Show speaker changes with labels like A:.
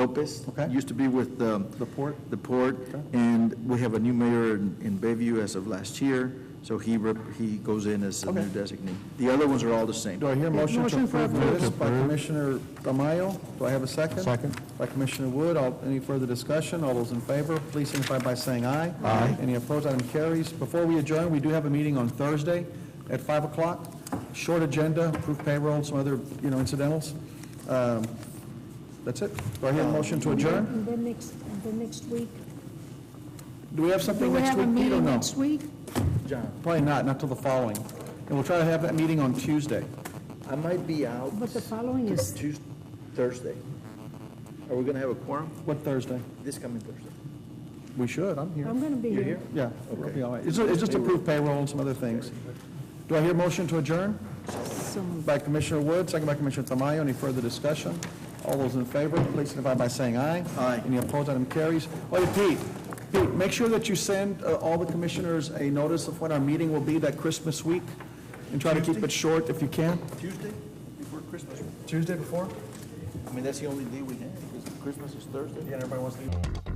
A: Lopez.
B: Okay.
A: Used to be with um,
B: The port?
A: the port,
B: Okay.
A: and we have a new mayor in in Bayview as of last year, so he, rep- he goes in as the new
B: Okay.
A: designee. The other ones are all the same.
B: Do I hear a motion to
C: Motion for
B: approve the list by Commissioner Tamayo? Do I have a second?
C: Second.
B: By Commissioner Wood, all, any further discussion? All those in favor, please signify by saying aye. Aye. Any opposed, item carries. Before we adjourn, we do have a meeting on Thursday at 5 o'clock. Short agenda, approve payroll, some other, you know, incidentals. Um, That's it. Do I hear a motion to adjourn?
D: And then next, and then next week.
B: Do we have
D: Do
B: something
D: we
B: next
D: have a
B: week, Pete, or
D: meeting
B: no?
D: next week?
B: Probably not, not till the following. And we'll try to have that meeting on Tuesday.
A: I might be out
D: But the following is
A: Tuesday, Thursday. Are we going to have a quorum
B: What Thursday?
A: this coming Thursday?
B: We should, I'm here.
D: I'm going to be
A: You're
D: here.
A: here?
B: Yeah, it'll be all right. It's it's just approved payroll and some other things. Do I hear a motion to adjourn?
D: So
B: By Commissioner Wood, second by Commissioner Tamayo. Any further discussion? All those in favor, please signify by saying aye.
A: Aye.
B: Any opposed, item carries. Oh, yeah, Pete, Pete, make sure that you send uh, all the commissioners a notice of when our meeting will be that Christmas week, and try to keep it short if you can.
A: Tuesday before Christmas.
B: Tuesday before?
A: I mean, that's the only day we have, because Christmas is Thursday.
B: Yeah, everybody wants to.